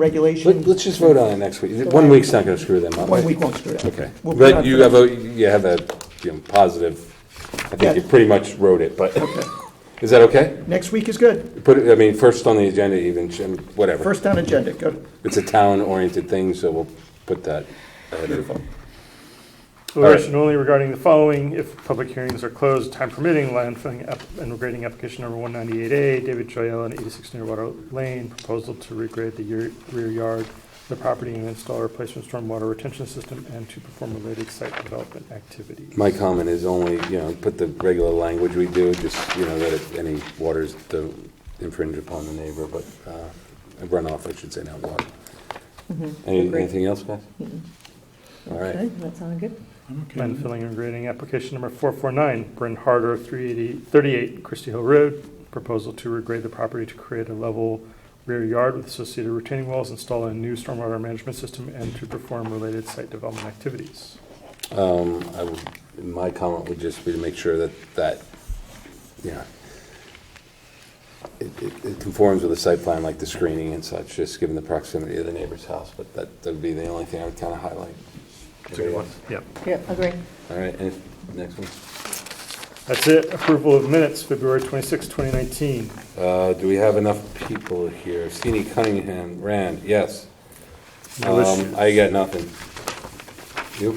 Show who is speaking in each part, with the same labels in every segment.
Speaker 1: Let-
Speaker 2: regulation.
Speaker 1: Let's just vote on it next week. One week's not gonna screw them up.
Speaker 2: One week won't screw it up.
Speaker 1: Okay.
Speaker 2: We'll
Speaker 1: But
Speaker 2: put
Speaker 1: you
Speaker 2: it
Speaker 1: have
Speaker 2: on-
Speaker 1: a, you have a, you know, positive, I think you
Speaker 2: Yeah.
Speaker 1: pretty much wrote it, but, is that okay?
Speaker 2: Next week is good.
Speaker 1: Put it, I mean, first on the agenda even, sh- and whatever.
Speaker 2: First on agenda, good.
Speaker 1: It's a town-oriented thing, so we'll put that. ahead of-
Speaker 3: Deliberation only regarding the following, if public hearings are closed, time permitting, landfilling app- and regrading application number 198A, David Joyelle and 86 Nearwater Lane, proposal to regrade the year- rear yard, of the property and install a replacement stormwater retention system, and to perform related site development activities.
Speaker 1: My comment is only, you know, put the regular language we do, just, you know, that if any waters don't infringe upon the neighbor, but uh, runoff, I should say, not water. Any-
Speaker 4: Agree.
Speaker 1: Anything else, guys? All right.
Speaker 4: Okay, that sounded good.
Speaker 3: Landfilling and regrading application number 449, Bryn Harder, 380 38 Christie Hill Road, proposal to regrade the property to create a level rear yard with associated retaining walls, install a new stormwater management system, and to perform related site development activities.
Speaker 1: Um, I would, my comment would just be to make sure that, that, you know, it, it- it conforms with the site plan, like the screening and such, just given the proximity of the neighbor's house, but that, that'd be the only thing I would kind of highlight.
Speaker 3: Yep.
Speaker 4: Yeah, agree.
Speaker 1: All right, and next one.
Speaker 3: That's it. Approval of minutes, February 26, 2019.
Speaker 1: Uh, do we have enough people here? Sini Cunningham, Rand, yes.
Speaker 3: No
Speaker 1: Um, I got nothing. You?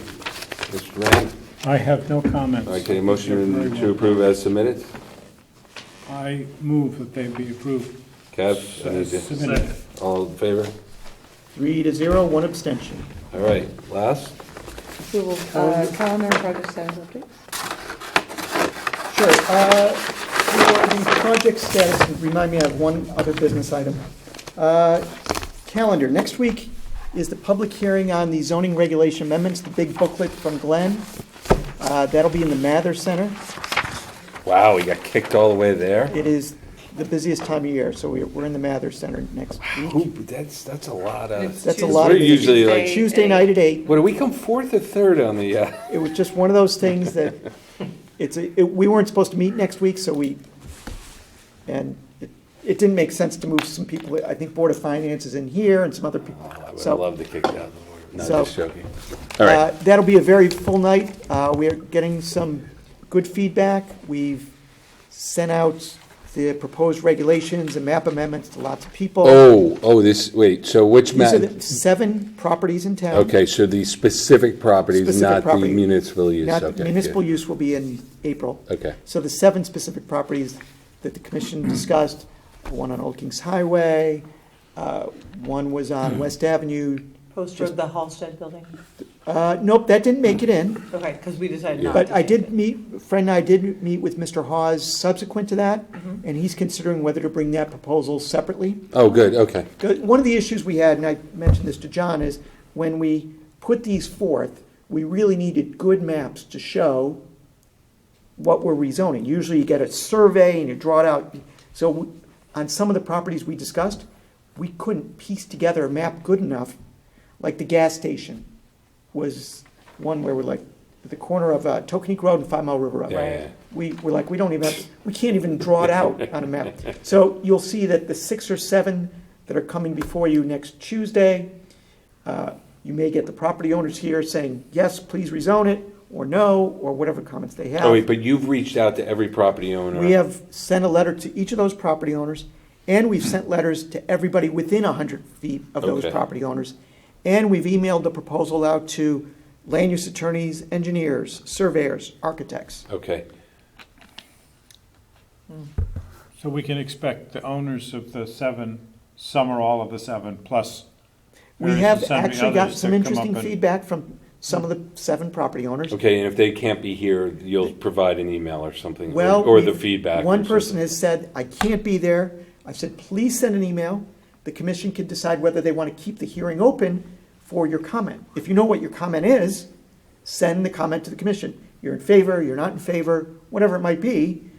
Speaker 1: Mr. Rand?
Speaker 5: I have no comments.
Speaker 1: Okay,
Speaker 5: Very
Speaker 1: motion
Speaker 5: well.
Speaker 1: to approve as submitted?
Speaker 5: I move that they be approved.
Speaker 1: Kev? I need
Speaker 5: as
Speaker 1: to-
Speaker 5: submitted.
Speaker 1: All in favor?
Speaker 2: Three to zero, one abstention.
Speaker 1: All right, last?
Speaker 4: Approval, uh, calendar and project status updates.
Speaker 2: Sure. uh, For the project status, remind me, I have one other business item. Uh, Calendar, next week is the public hearing on the zoning regulation amendments, the big booklet from Glenn. Uh, That'll be in the Mather Center.
Speaker 1: Wow, we got kicked all the way there?
Speaker 2: It is the busiest time of year, so we're we're in the Mather Center next
Speaker 1: Who-
Speaker 2: week.
Speaker 1: That's, that's a lot of,
Speaker 2: That's a lot
Speaker 1: We're
Speaker 2: of,
Speaker 1: usually like-
Speaker 2: Tuesday night at eight.
Speaker 1: what, do we come fourth or third on the, uh?
Speaker 2: It was just one of those things that, it's, a- it- we weren't supposed to meet next week, so we, and it- it didn't make sense to move some people, I think Board of Finance is in here and some other people.
Speaker 1: Oh, I would
Speaker 2: So,
Speaker 1: have loved to kick it out. No,
Speaker 2: So-
Speaker 1: just joking. All right.
Speaker 2: uh, That'll be a very full night. Uh, We are getting some good feedback. We've sent out the proposed regulations and map amendments to lots of people.
Speaker 1: Oh, oh, this, wait, so which
Speaker 2: These
Speaker 1: map?
Speaker 2: are the seven properties in town.
Speaker 1: Okay, so the specific properties,
Speaker 2: Specific
Speaker 1: not the
Speaker 2: property.
Speaker 1: municipal use,
Speaker 2: Not-
Speaker 1: okay. yeah.
Speaker 2: Municipal use will be in April.
Speaker 1: Okay,
Speaker 2: So the seven specific properties that the commission discussed, one on Old Kings Highway, uh, one was on West Avenue.
Speaker 6: Post Road, the Halsted building?
Speaker 2: Uh, Nope, that didn't make it in,
Speaker 6: Okay, because we decided
Speaker 1: Yeah.
Speaker 6: not to.
Speaker 2: but I
Speaker 6: change
Speaker 2: did
Speaker 6: it.
Speaker 2: meet, Fred and I did meet with Mr. Hawes subsequent to that, and he's considering whether to bring that proposal separately.
Speaker 1: oh, good, okay,
Speaker 2: Good. One of the issues we had, and I mentioned this to John, is when we put these forth, we really needed good maps to show what we're rezoning. Usually you get a survey and you draw it out. So we- on some of the properties we discussed, we couldn't piece together a map good enough. Like the gas station was one where we're like, at the corner of uh, Tokenique Road and Five Mile River Road.
Speaker 1: Yeah, yeah, yeah.
Speaker 2: We were like, we don't even, have- we can't even draw it out on a map. So you'll see that the six or seven that are coming before you next Tuesday, uh, you may get the property owners here saying, yes, please rezone it, or no, or whatever comments they have.
Speaker 1: oh, wait, but you've reached out to every property owner?
Speaker 2: We have sent a letter to each of those property owners, and we've sent letters to everybody within 100 feet of those
Speaker 1: Okay.
Speaker 2: property owners. And we've emailed the proposal out to land use attorneys, engineers, surveyors, architects.
Speaker 1: Okay,
Speaker 5: So we can expect the owners of the seven, some or all of the seven, plus.
Speaker 2: We
Speaker 5: various
Speaker 2: have
Speaker 5: and sundry
Speaker 2: actually gotten
Speaker 5: others
Speaker 2: some
Speaker 5: that come
Speaker 2: interesting
Speaker 5: up and-
Speaker 2: feedback from some of the seven property owners.
Speaker 1: okay, and if they can't be here, you'll provide an email or something? or-
Speaker 2: Well.
Speaker 1: Or the
Speaker 2: we've-
Speaker 1: feedback? or
Speaker 2: One person
Speaker 1: something.
Speaker 2: has said, I can't be there. I've said, please send an email. The commission can decide whether they want to keep the hearing open for your comment. If you know what your comment is, send the comment to the commission. You're in favor, you're not in favor, whatever it might be.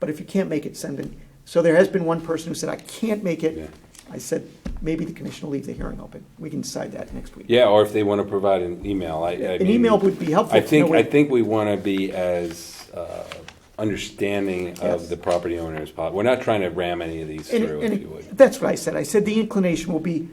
Speaker 2: But if you can't make it, send it. So there has been one person who said, I can't make
Speaker 1: Yeah.
Speaker 2: it. I said, maybe the commission will leave the hearing open. We can decide that next week.
Speaker 1: Yeah, or if they want to provide an email, I, I
Speaker 2: An
Speaker 1: mean,
Speaker 2: email would be helpful
Speaker 1: I
Speaker 2: to
Speaker 1: think,
Speaker 2: know
Speaker 1: I
Speaker 2: what-
Speaker 1: think we want to be as uh, understanding of
Speaker 2: Yes.
Speaker 1: the property owners. po- We're not trying to ram any of these
Speaker 2: And-
Speaker 1: through,
Speaker 2: and
Speaker 1: if you would.
Speaker 2: That's what I said. I said the inclination will be